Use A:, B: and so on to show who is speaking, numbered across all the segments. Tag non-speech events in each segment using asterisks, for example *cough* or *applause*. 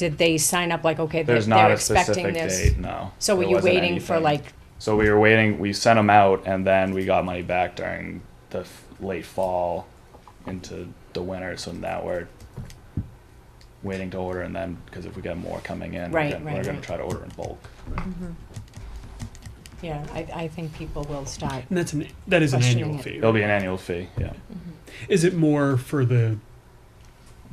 A: did they sign up like, okay, they're,
B: There's not
A: they're
B: a
A: expecting
B: specific
A: this?
B: date, no.
A: So were
B: There
A: you
B: wasn't
A: waiting for
B: anything.
A: like,
B: So we were waiting, we sent them out and then we got money back during the f- late fall into the winter, so now we're waiting to order and then, cause if we get more coming in, we're
A: Right,
B: gonna,
A: right,
B: we're gonna
A: right.
B: try to order in bulk.
C: Mm-hmm.
A: yeah, I, I think people will start.
D: And that's an that is an
A: Questioning
D: annual
A: it.
D: fee.
B: It'll be an annual fee, yeah.
C: Mm-hmm.
D: Is it more for the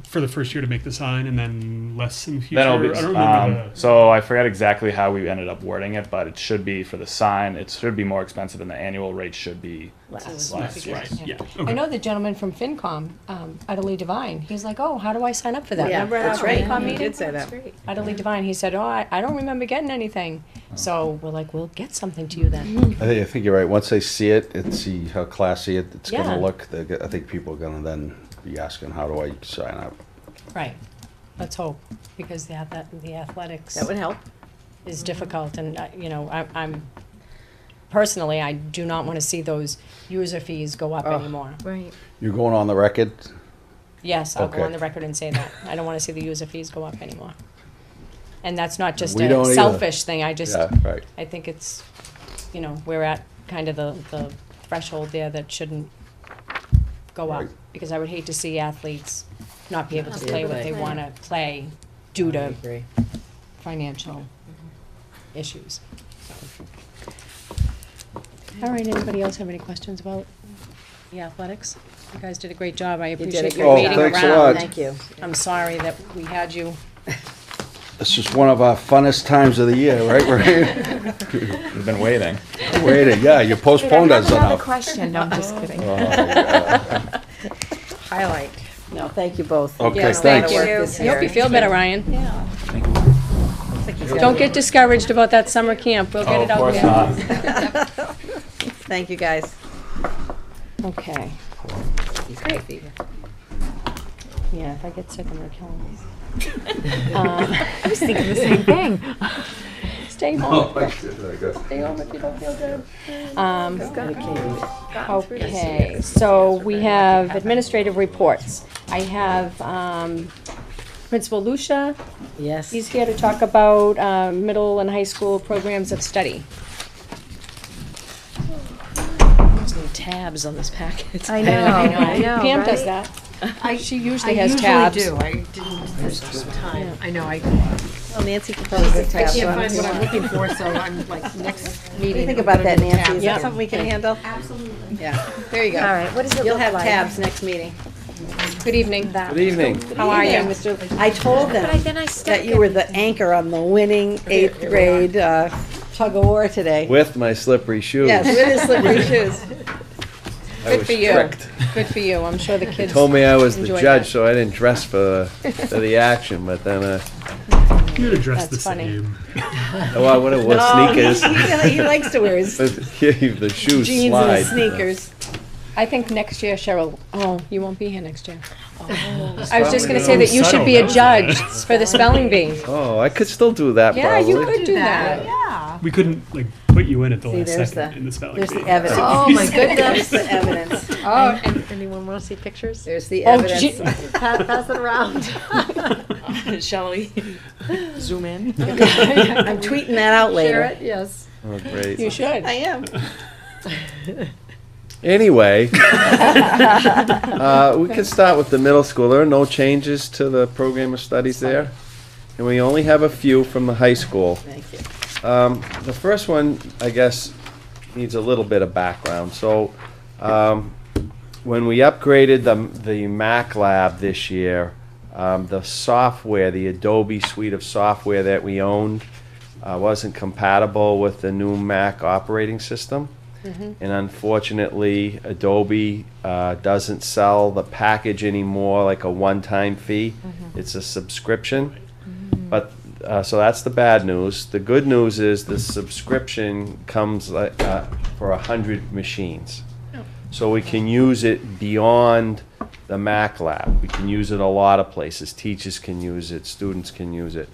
D: for the first year to make the sign and then less in the future?
B: Then it'll be,
D: I don't remember
B: um,
D: the,
B: so I forget exactly how we ended up wording it, but it should be for the sign, it should be more expensive and the annual rate should be
A: Last.
B: less,
D: Less, right.
B: yes.
D: Yeah.
A: I
D: Okay.
A: know the gentleman from FinCom, um, Adelie Devine, he's like, oh, how do I sign up for that? Remember
C: that's
A: our
C: right.
A: FinCom
C: You
A: meeting?
C: did say that.
A: Adelie Devine, he said, oh, I, I don't remember getting anything.
B: Oh.
A: So we're like, we'll get something to you
C: Mm-hmm.
A: then.
E: I think, I think you're right. Once they see it and see how classy it, it's
A: Yeah.
E: gonna look, they're go- I think people are gonna then be asking, how do I sign up?
A: Right, let's hope, because the ath- the athletics
C: That would help.
A: is difficult and, I- you know, I- I'm, personally, I do not want to see those user fees go up anymore.
C: Right.
E: You're going on the record?
A: Yes, I'll go on
E: Okay.
A: the record and say that. I don't want to see the user fees go up anymore. And that's not just
E: We don't
A: a
E: either.
A: selfish thing, I just,
E: Yeah, right.
A: I think it's, you know, we're at kind of the, the threshold there that shouldn't go up.
E: Right.
A: Because I would hate to see athletes not be able to
C: Not be
A: play
C: able
A: what
C: to
A: they
C: play.
A: wanna play due
C: uh,
A: to financial issues. All right, anybody else have any questions about the athletics? You guys did a great job, I
C: did a
A: appreciate
C: great
A: you
C: job.
A: waiting
C: Oh,
A: around.
E: thanks a lot.
C: Thank you.
A: I'm sorry that we had you.
E: This is one of our funnest times of the year, right?
C: *laughs*
E: We're *laughs*
B: We've
A: *laughs*
B: been waiting.
E: waiting, yeah, you postponed us
F: Another
E: enough.
F: question, no, I'm just kidding.
B: uh,
E: Oh, yeah.
A: *laughs*
C: Highlight. No, thank you both.
E: Okay,
C: You've done a lot of
E: thanks.
C: work
F: Thank you.
C: this
A: I hope
C: year.
A: you feel better, Ryan.
C: Looks like he's
A: Don't
C: done-
A: get discouraged about that summer camp, we'll get
B: Oh,
A: it
B: of
A: out
B: course
A: there. *laughs*
B: not.
C: Thank you, guys.
A: Okay,
C: He's got a fever.
A: yeah, if I get sick, I'm gonna kill him.
F: *laughs* I was thinking the same thing.
A: *laughs* Stay
E: Oh,
A: home, stay home if you don't feel good.
F: Oh.
A: Um, Okay, so we have administrative reports. I have um, Principal Lucia,
C: Yes.
A: he's here to talk about uh, middle and high school programs of study.
G: There's no tabs on this packet.
F: I know, I know,
A: Pam does
F: right?
A: that. She
F: I
A: usually has
F: usually
A: tabs.
F: do, I didn't this time, I know, I
C: Well, Nancy can probably get
F: I
C: tabs
F: can't
C: on
F: find
C: it.
F: what I'm looking for, so I'm like, next meeting.
C: What do you think
F: I'm
C: about
F: gonna
C: that,
F: do
C: Nancy? Is
F: tabs.
C: that something we can handle? Absolutely. Yeah, there you go.
F: All right, what does it
C: You'll
F: look
C: have
F: like?
C: tabs next meeting.
A: Good evening.
E: Good evening.
A: How are you?
C: Mr. I told them.
F: But I- then I stuck
C: that you were
F: it.
C: the anchor on the winning eighth grade uh, tug of war today.
E: With my slippery shoes.
C: Yes, with his
E: *laughs*
C: slippery shoes.
A: Good for you. Good for you. I'm
H: *laughs*
A: sure the kids.
H: told me I was the
A: Enjoy
H: judge,
A: that.
H: so I didn't dress for, for the action. But then, uh,
D: you'd address the
A: That's funny.
D: same.
C: *laughs*
H: oh, I would have worn sneakers.
C: He, he likes to wear his
H: But yeah, the shoes
C: jeans
H: slide.
C: and his sneakers.
A: *laughs* I think next year, Cheryl, oh, you won't be here next year.
F: *laughs*
A: I was just gonna say that you should be a
D: Subtle,
A: judge for the spelling bee.
H: *laughs* Oh, I could still do that.
A: Yeah,
H: probably.
A: you could do that.
D: We couldn't like put you in at the
C: See,
D: last
C: there's
D: second
C: the-
D: in the spelling
C: There's the
D: bee.
C: evidence. *laughs*
F: Oh, my
C: There's
F: goodness.
C: the evidence.
F: Oh, and anyone want to
C: *laughs*
F: see *laughs* pictures?
C: There's the
A: Oh,
C: evidence.
A: gee.
F: Pass pass it
A: *laughs*
F: around.
G: Shall we zoom in?
C: I'm tweeting that out
F: Share
C: later.
F: it, yes.
H: Oh,
A: You
H: great.
A: should.
C: I am. *laughs*
H: Anyway, uh, we can start with the middle school. There are no changes to the program of studies there, and we only have a few from the high school.
C: Thank you.
H: Um, the first one, I guess, needs a little bit of background. So, um, when we upgraded the, the Mac lab this year, um, the software, the Adobe suite of software that we owned, uh, wasn't compatible with the new Mac operating system. And unfortunately, Adobe uh, doesn't sell the package anymore like a one time fee, it's a subscription. But, uh, so that's the bad news. The good news is the subscription comes like, uh, for a hundred machines. So we can use it beyond the Mac lab. We can use it a lot of places. Teachers can use it, students can use it.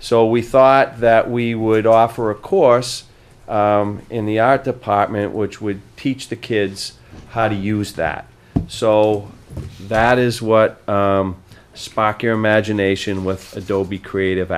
H: So we thought that we would offer a course um, in the art department which would teach the kids how to use that. So that is what um, spark your imagination with Adobe Creative